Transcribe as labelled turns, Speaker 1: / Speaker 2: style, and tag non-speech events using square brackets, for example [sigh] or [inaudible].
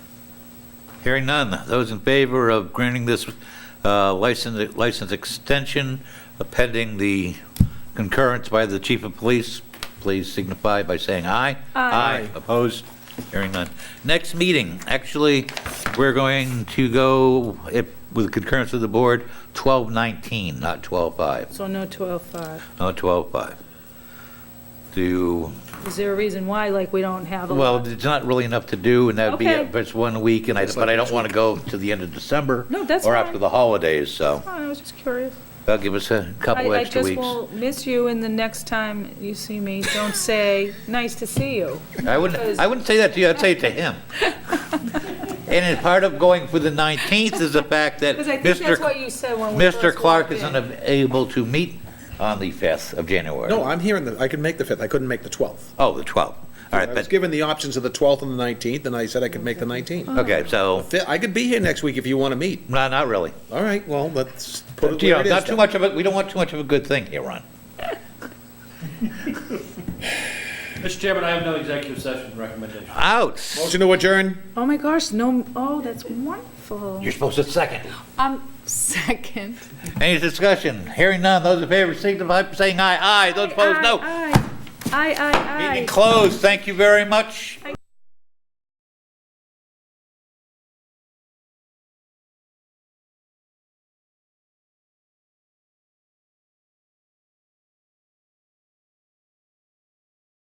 Speaker 1: Hearing none, those in favor of granting this uh, license license extension pending the concurrence by the chief of police, please signify by saying aye. Aye. Opposed? Hearing none. Next meeting, actually, we're going to go, if- with concurrence of the board, 12:19, not 12:05.
Speaker 2: So no 12.5.
Speaker 1: No, 12:05. Do, you-
Speaker 2: Is there a reason why, like, we don't have a lot?
Speaker 1: well, it's not really enough to do, and that'd be
Speaker 2: Okay.
Speaker 1: it if it's one week, and I, but I don't want to go to the end of December.
Speaker 2: No, that's
Speaker 1: Or
Speaker 2: fine.
Speaker 1: after the holidays, so
Speaker 2: Oh, I was just curious.
Speaker 1: that'll give us a couple
Speaker 2: I-
Speaker 1: extra
Speaker 2: I just
Speaker 1: weeks.
Speaker 2: will miss you, and the next time you see me, [laughs] don't say, "Nice to see you."
Speaker 1: I wouldn't, I wouldn't say that to you, I'd say it to
Speaker 2: [laughs]
Speaker 1: him. And as part of going for the 19th is the fact that
Speaker 2: Because I think that's
Speaker 1: Mr.
Speaker 2: what you said when we
Speaker 1: Mr.
Speaker 2: first
Speaker 1: Clark
Speaker 2: walked
Speaker 1: is
Speaker 2: in.
Speaker 1: unable to meet on the 5th of January.
Speaker 3: No, I'm hearing that, I could make the 5th, I couldn't make the 12th.
Speaker 1: Oh, the 12th. All
Speaker 3: I
Speaker 1: right,
Speaker 3: was
Speaker 1: but,
Speaker 3: given the options of the 12th and the 19th, and I said I could make the 19th.
Speaker 1: okay, so,
Speaker 3: Fi- I could be here next week if you want to meet.
Speaker 1: no, not really.
Speaker 3: All right, well, let's put it
Speaker 1: You know,
Speaker 3: where it is.
Speaker 1: Not too
Speaker 3: then.
Speaker 1: much of it, we don't want too much of a good thing here, Ron.
Speaker 4: Mr. Chairman, I have no executive session recommendation.
Speaker 1: Ouch!
Speaker 3: Motion to adjourn?
Speaker 2: Oh, my gosh, no, oh, that's wonderful.
Speaker 1: You're supposed to second.
Speaker 5: Um, second.
Speaker 1: Any discussion? Hearing none, those in favor signify by saying aye. Aye, those opposed, no.
Speaker 2: Aye, aye, aye, aye.
Speaker 1: Meeting closed, thank you very much.